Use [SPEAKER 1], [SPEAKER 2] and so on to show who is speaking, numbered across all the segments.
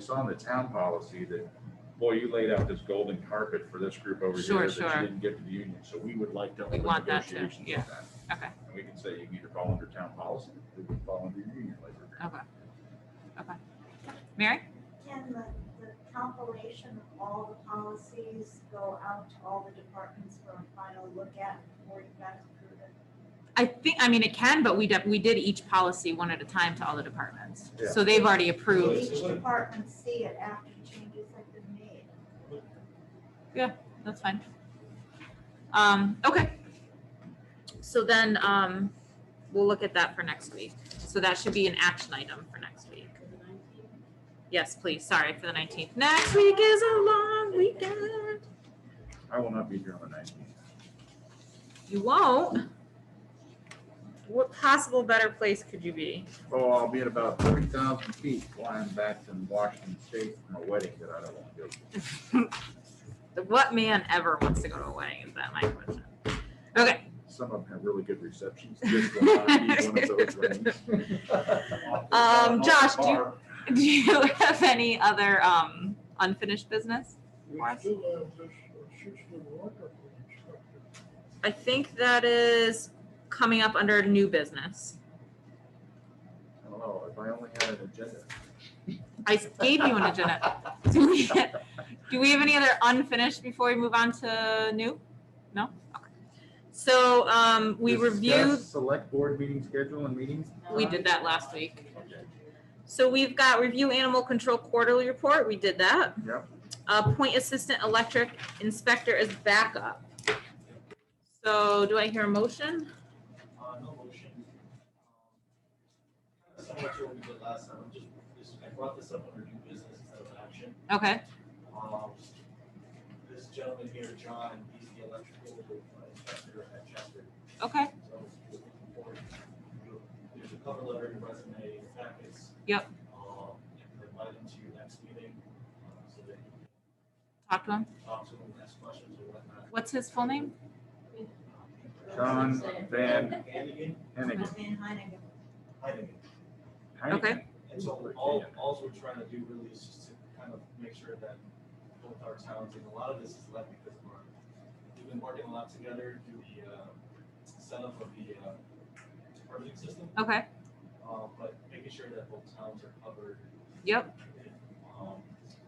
[SPEAKER 1] saw in the town policy that, boy, you laid out this golden carpet for this group over
[SPEAKER 2] Sure,
[SPEAKER 1] here that
[SPEAKER 2] sure.
[SPEAKER 1] you didn't give to the union, so we would like to
[SPEAKER 2] We
[SPEAKER 1] open
[SPEAKER 2] want that too,
[SPEAKER 1] negotiations with
[SPEAKER 2] yeah.
[SPEAKER 1] that.
[SPEAKER 2] Okay,
[SPEAKER 1] And we can say you can either fall under town policy, or you can fall under union labor. agreement.
[SPEAKER 2] okay. Okay. Mary?
[SPEAKER 3] Can the, the compilation of all the policies go out to all the departments for a final look at before you guys approve it?
[SPEAKER 2] I think, I mean, it can, but we did, we did each policy one at a time to all the departments.
[SPEAKER 1] Yeah.
[SPEAKER 2] So they've already
[SPEAKER 3] Will
[SPEAKER 2] approved.
[SPEAKER 3] Each department see it after changes have been made.
[SPEAKER 2] That's fine. Um, okay. So then, um, we'll look at that for next week. So that should be an action item for next week. Yes, please. Sorry for the nineteenth. Next week is a long weekend.
[SPEAKER 1] I will not be here on the nineteenth.
[SPEAKER 2] You won't. What possible better place could you be?
[SPEAKER 1] Oh, I'll be at about thirty thousand feet flying back from Washington State from a wedding that I don't want to go to.
[SPEAKER 2] What man ever wants to go to a wedding? Is that my question? Okay.
[SPEAKER 1] Some of them have really good receptions. This will not be one of those weddings.
[SPEAKER 2] Um, Josh, do you, do you have any other, um, unfinished business?
[SPEAKER 4] We
[SPEAKER 2] Mark?
[SPEAKER 4] still have this uh, six-foot walker for inspector.
[SPEAKER 2] I think that is coming up under new business.
[SPEAKER 1] I don't know, if I only had an agenda.
[SPEAKER 2] I gave you an agenda. Do we, do we have any other unfinished before we move on to new? No? Okay. So, um, we
[SPEAKER 1] Discuss
[SPEAKER 2] reviewed,
[SPEAKER 1] Select board meeting schedule and meetings?
[SPEAKER 2] we did that last week.
[SPEAKER 1] Okay.
[SPEAKER 2] So we've got review animal control quarterly report. We did that.
[SPEAKER 1] Yep.
[SPEAKER 2] Appoint assistant electric inspector as backup. So do I hear a motion?
[SPEAKER 5] Uh, no motion. Um, Similar to what we did last time, I'm just, this, I brought this up under new business instead of action.
[SPEAKER 2] Okay,
[SPEAKER 5] Um, this gentleman here, John, he's the electrical uh, inspector at Chester.
[SPEAKER 2] okay.
[SPEAKER 5] So we're looking forward to- There's a cover letter, and resume, packets.
[SPEAKER 2] Yep.
[SPEAKER 5] Um, and invite him to your next meeting, uh, so that you
[SPEAKER 2] Talk to him.
[SPEAKER 5] can talk to him, ask questions or whatnot.
[SPEAKER 2] What's his full name?
[SPEAKER 1] John Van
[SPEAKER 5] Hannigan,
[SPEAKER 1] Hennigan.
[SPEAKER 3] Van Heineken.
[SPEAKER 5] Hannigan.
[SPEAKER 1] Heineken.
[SPEAKER 2] Okay.
[SPEAKER 5] And so all, all we're trying to do really is just to kind of make sure that both our towns, and a lot of this is left because of our, we've been working a lot together through the, uh, setup of the, uh, permitting system,
[SPEAKER 2] Okay,
[SPEAKER 5] uh, but making sure that both towns are covered.
[SPEAKER 2] Yep.
[SPEAKER 5] Um,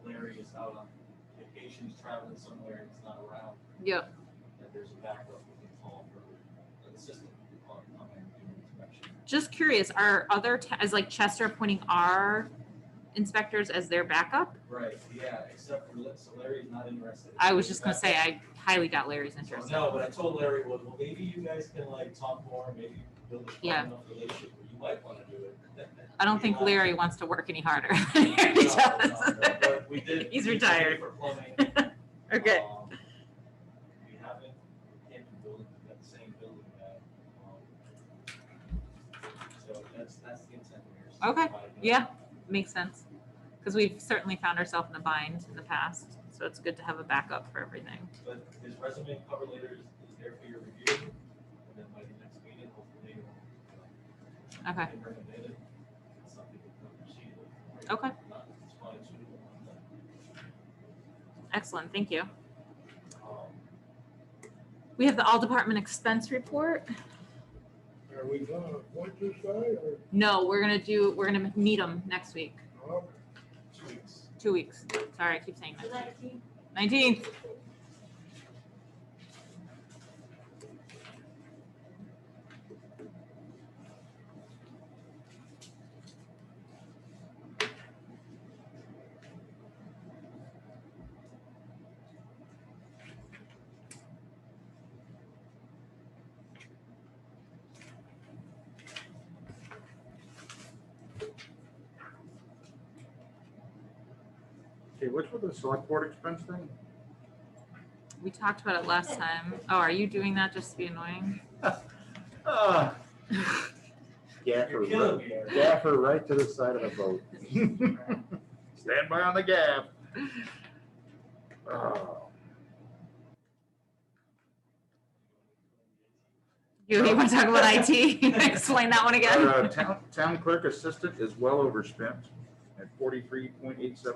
[SPEAKER 5] Larry is out on vacation, he's traveling somewhere, and he's not around,
[SPEAKER 2] yep,
[SPEAKER 5] that there's a backup we can call for the system, on, on doing inspection.
[SPEAKER 2] just curious, are other, ta- is like Chester appointing our inspectors as their backup?
[SPEAKER 5] Right, yeah, except for, so Larry's not interested.
[SPEAKER 2] I was just gonna say, I highly doubt Larry's
[SPEAKER 5] So,
[SPEAKER 2] interest.
[SPEAKER 5] No, but I told Larry, well, well, maybe you guys can like talk more, maybe build a
[SPEAKER 2] Yeah.
[SPEAKER 5] strong enough relationship where you might wanna do it.
[SPEAKER 2] I don't think
[SPEAKER 5] Yeah.
[SPEAKER 2] Larry wants to work any harder.
[SPEAKER 5] No,
[SPEAKER 2] He
[SPEAKER 5] no, no,
[SPEAKER 2] does.
[SPEAKER 5] But we did.
[SPEAKER 2] He's
[SPEAKER 5] we did
[SPEAKER 2] retired.
[SPEAKER 5] For plumbing.
[SPEAKER 2] Okay,
[SPEAKER 5] um, We haven't, we can't be building, we've got the same building that, um, so that's, that's the intent here. is to
[SPEAKER 2] Okay,
[SPEAKER 5] provide that.
[SPEAKER 2] yeah, makes sense. Because we've certainly found ourselves in a bind in the past, so it's good to have a backup for everything.
[SPEAKER 5] But his resume and cover letter is, is there for your review, and then by the next meeting, hopefully. you'll, uh,
[SPEAKER 2] Okay.
[SPEAKER 5] can bring it in and Something we can proceed with.
[SPEAKER 2] Okay.
[SPEAKER 5] Not, it's fine, it's suitable, but,
[SPEAKER 2] Excellent, thank you.
[SPEAKER 5] um,
[SPEAKER 2] We have the all department expense report.
[SPEAKER 4] Are we gonna appoint this guy or?
[SPEAKER 2] No, we're gonna do, we're gonna meet them next week,
[SPEAKER 4] no?
[SPEAKER 5] two weeks.
[SPEAKER 2] two weeks. Sorry, I keep saying
[SPEAKER 3] So
[SPEAKER 2] that.
[SPEAKER 3] that team-
[SPEAKER 2] Nineteenth,
[SPEAKER 1] Okay, which was the select board expense thing?
[SPEAKER 2] we talked about it last time. Oh, are you doing that just to be annoying?
[SPEAKER 1] Ah,
[SPEAKER 5] You're
[SPEAKER 1] Gaffer,
[SPEAKER 5] killing
[SPEAKER 1] right-
[SPEAKER 5] me, Eric.
[SPEAKER 1] gaffer right to the side of the boat. Stand by on the gaff. Oh,
[SPEAKER 2] You, you wanna talk about IT? Explain that
[SPEAKER 1] Uh,
[SPEAKER 2] one again?
[SPEAKER 1] Our, uh, Town, town clerk assistant is well overspent at forty-three point eight seven